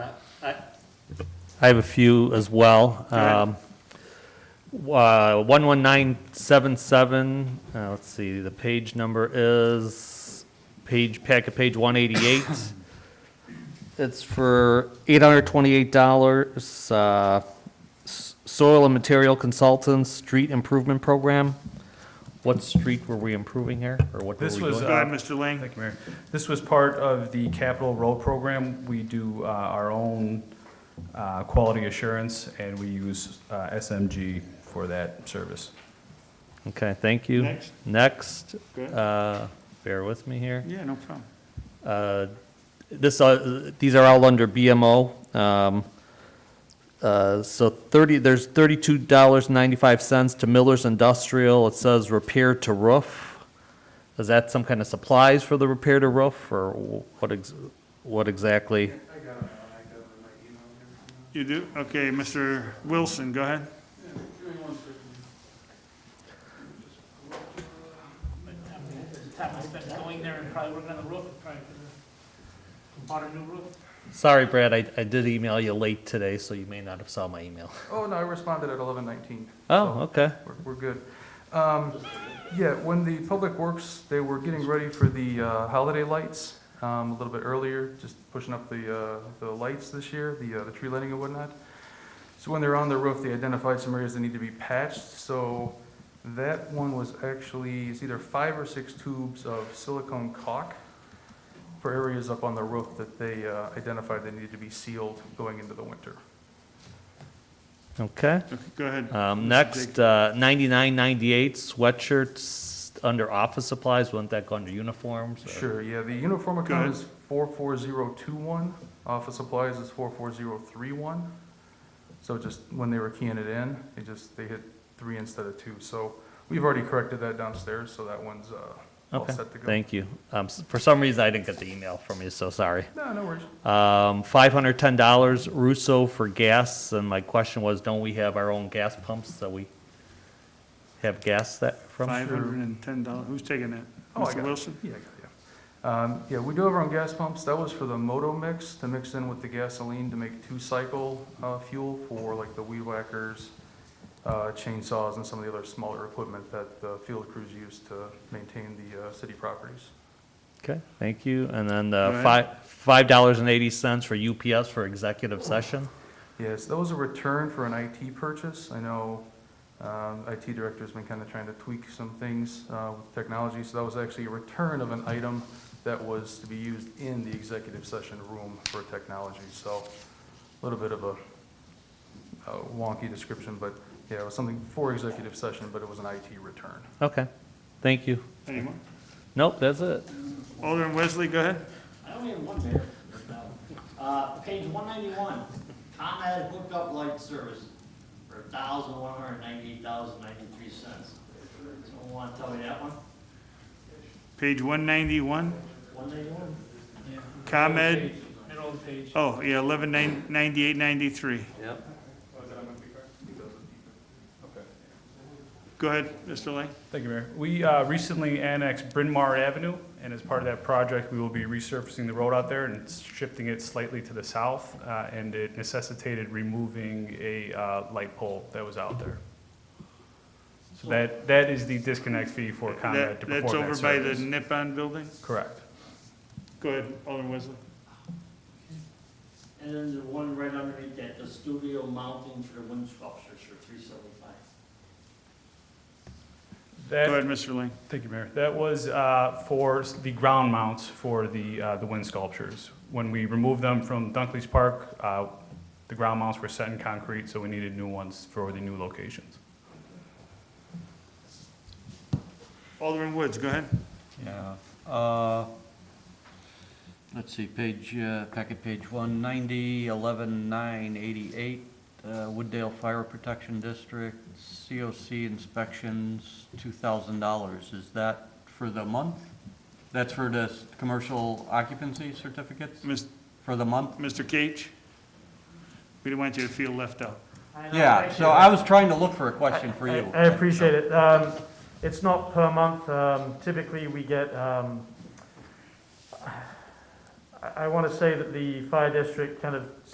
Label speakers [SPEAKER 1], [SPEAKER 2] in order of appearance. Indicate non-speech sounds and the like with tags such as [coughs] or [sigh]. [SPEAKER 1] I have a few as well.
[SPEAKER 2] right.
[SPEAKER 1] Um, uh, 11977, uh, let's see, the page number is, page, packet page 188. [coughs] It's for $828, uh, s- soil and material consultants, street improvement program. What street were we improving here, or what were we
[SPEAKER 3] This
[SPEAKER 1] doing?
[SPEAKER 3] was,
[SPEAKER 2] Go
[SPEAKER 3] uh,
[SPEAKER 2] ahead, Mr. Lang.
[SPEAKER 3] Thank you, Mayor. This was part of the capital road program. We do uh, our own uh, quality assurance, and we use uh, SMG for that service.
[SPEAKER 1] Okay, thank you.
[SPEAKER 2] Next.
[SPEAKER 1] Next,
[SPEAKER 2] Go ahead.
[SPEAKER 1] uh, bear with me here.
[SPEAKER 2] Yeah, no problem.
[SPEAKER 1] Uh, This, uh, these are all under BMO. Um, uh, So 30, there's $32.95 to Miller's Industrial. It says repair to roof. Is that some kind of supplies for the repair to roof, or wh- what, ex- what exactly?
[SPEAKER 2] You do? Okay, Mr. Wilson, go ahead.
[SPEAKER 4] time I spent going there and probably working on the roof, probably could've bought a new roof.
[SPEAKER 1] Sorry, Brad, I I did email you late today, so you may not have saw my email.
[SPEAKER 5] Oh, no, I responded at 11:19.
[SPEAKER 1] Oh, okay.
[SPEAKER 5] We're, we're good. Um, Yeah, when the Public Works, they were getting ready for the uh, holiday lights um, a little bit earlier, just pushing up the, uh, the lights this year, the, uh, the tree lighting and whatnot. So when they were on the roof, they identified some areas that need to be patched, so that one was actually, it's either five or six tubes of silicone caulk for areas up on the roof that they uh, identified that needed to be sealed going into the winter.
[SPEAKER 1] Okay.
[SPEAKER 2] Okay, Go ahead.
[SPEAKER 1] Um,
[SPEAKER 2] Mr.
[SPEAKER 1] Next, uh, 9998 sweatshirts under office supplies, wouldn't that go under uniforms? or-
[SPEAKER 5] Sure, yeah, the uniform
[SPEAKER 2] Go
[SPEAKER 5] account
[SPEAKER 2] ahead.
[SPEAKER 5] is 44021, office supplies is 44031. So just when they were keying it in, they just, they hit three instead of two. So we've already corrected that downstairs, so that one's uh, all
[SPEAKER 1] Okay,
[SPEAKER 5] set to go.
[SPEAKER 1] thank you. Um, s- For some reason, I didn't get the email from you, so sorry.
[SPEAKER 5] No, no worries.
[SPEAKER 1] Um, $510 Russo for gas, and my question was, don't we have our own gas pumps that we have gas that from?
[SPEAKER 2] Five hundred and ten dollars. Who's taking that?
[SPEAKER 5] Oh, I got
[SPEAKER 2] Mr.
[SPEAKER 5] it.
[SPEAKER 2] Wilson?
[SPEAKER 5] Yeah, I got it, yeah. Um, Yeah, we do have our own gas pumps. That was for the moto mix to mix in with the gasoline to make two-cycle uh, fuel for like the weed whackers, uh, chainsaws, and some of the other smaller equipment that the field crews use to maintain the uh, city properties.
[SPEAKER 1] Okay, thank you. And then
[SPEAKER 2] All
[SPEAKER 1] uh,
[SPEAKER 2] right.
[SPEAKER 1] fi- $5.80 for UPS for executive session?
[SPEAKER 5] Yes, that was a return for an IT purchase. I know um, IT director's been kind of trying to tweak some things uh, with technology, so that was actually a return of an item that was to be used in the executive session room for technology. So a little bit of a a wonky description, but yeah, it was something for executive session, but it was an IT return.
[SPEAKER 1] Okay, thank you.
[SPEAKER 2] Any more?
[SPEAKER 1] Nope, that's it.
[SPEAKER 2] Alderman Wesley, go ahead.
[SPEAKER 6] I only have one there. Uh, page one ninety-one, Tom had hooked up light service for a thousand one hundred ninety-eight dollars and ninety-three cents. Someone wanna tell me that one?
[SPEAKER 2] Page one ninety-one,
[SPEAKER 6] One ninety-one?
[SPEAKER 2] ComEd,
[SPEAKER 4] Middle of the page.
[SPEAKER 2] oh, yeah, eleven nine, ninety-eight, ninety-three.
[SPEAKER 6] Yep.
[SPEAKER 2] Go ahead, Mr. Lang.
[SPEAKER 3] Thank you, Mayor. We uh, recently annexed Bryn Mawr Avenue, and as part of that project, we will be resurfacing the road out there and shifting it slightly to the south, uh, and it necessitated removing a uh, light pole that was out there. So that, that is the disconnect fee for Conrad
[SPEAKER 2] That-
[SPEAKER 3] to
[SPEAKER 2] That's
[SPEAKER 3] perform that
[SPEAKER 2] over by the
[SPEAKER 3] service.
[SPEAKER 2] Nippon building?
[SPEAKER 3] Correct.
[SPEAKER 2] Go ahead, Alderman Wesley.
[SPEAKER 6] And then the one right underneath that, the studio mounting for the wind sculptures for three seventy-five.
[SPEAKER 3] That-
[SPEAKER 2] Go ahead, Mr. Lang.
[SPEAKER 3] Thank you, Mayor. That was uh, for s- the ground mounts for the, uh, the wind sculptures. When we removed them from Dunkley's Park, uh, the ground mounts were set in concrete, so we needed new ones for the new locations.
[SPEAKER 2] Alderman Woods, go ahead.
[SPEAKER 7] Yeah, uh, let's see, page, uh, packet page one ninety, eleven nine eighty-eight, uh, Wooddale Fire Protection District, COC inspections, two thousand dollars, is that for the month? That's for the s- commercial occupancy certificates,
[SPEAKER 2] Mis-
[SPEAKER 7] for the month?
[SPEAKER 2] Mr. Cage? We didn't want you to feel left out.
[SPEAKER 7] Yeah, so I was trying to look for a question for you.
[SPEAKER 8] I appreciate it. Um, It's not per month. Um, Typically, we get, um, I want to say that the fire district kind of